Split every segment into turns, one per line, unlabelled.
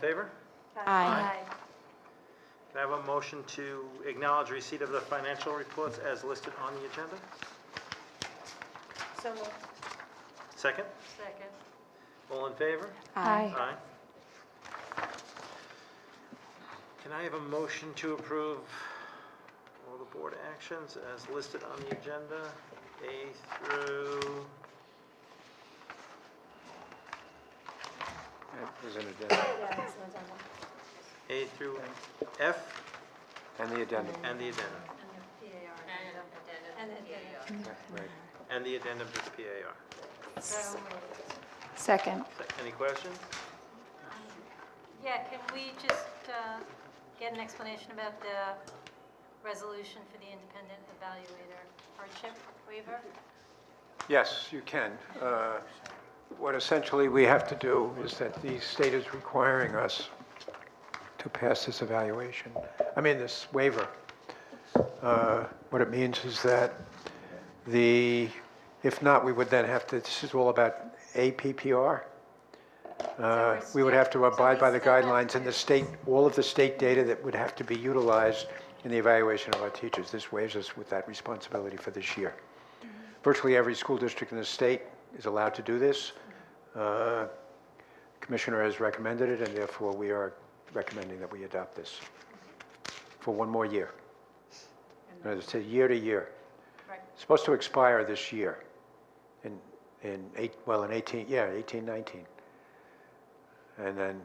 favor?
Aye.
Can I have a motion to acknowledge receipt of the financial reports as listed on the agenda?
So moved.
Second?
Second.
All in favor?
Aye.
Aye. Can I have a motion to approve all the board actions as listed on the agenda, A through,
It was an addendum,
Yeah, it's not done.
A through F
and the addendum,
and the addendum?
And the PAR. And the addendum.
yeah, right.
And the addendum to the PAR.
So moved.
Second.
Se- Any questions?
Yeah, can we just uh, get an explanation about the resolution for the independent evaluator hardship waiver?
Yes, you can. Uh, What essentially we have to do is that the state is requiring us to pass this evaluation, I mean, this waiver. Uh, What it means is that the, if not, we would then have to, this is all about APPR. Uh, We would have to abide by the guidelines and the state, all of the state data that would have to be utilized in the evaluation of our teachers. This waives us with that responsibility for this year. Virtually every school district in the state is allowed to do this. Uh, Commissioner has recommended it, and therefore we are recommending that we adopt this for one more year. And It's a year to year.
Right.
It's Supposed to expire this year in, in eight, well, in 18, yeah, 18, 19. And then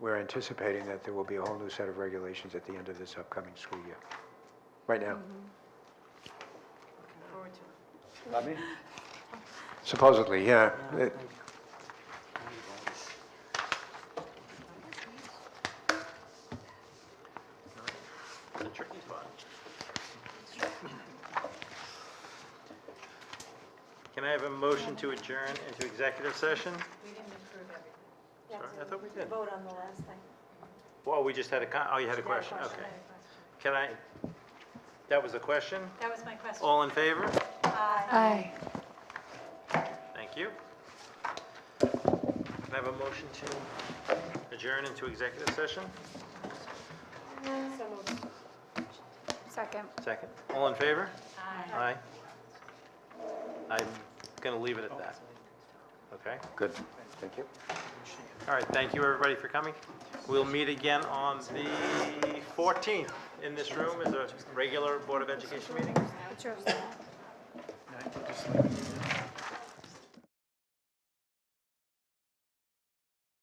we're anticipating that there will be a whole new set of regulations at the end of this upcoming school year. Right now.
Forward to it.
Supposedly, yeah. It-
It's a tricky spot. Can I have a motion to adjourn into executive session?
We didn't approve everything.
Sorry, I thought we did.
Vote on the last thing.
Well, we just had a con, oh, you had a question, okay. Can I, that was a question?
That was my question.
All in favor?
Aye.
Aye.
Thank you. Can I have a motion to adjourn into executive session?
So moved.
Second.
Second. All in favor?
Aye.
Aye. I'm going to leave it at that. Okay?
Good, thank you.
All right, thank you, everybody, for coming. We'll meet again on the 14th in this room as a regular Board of Education meeting.
What's yours?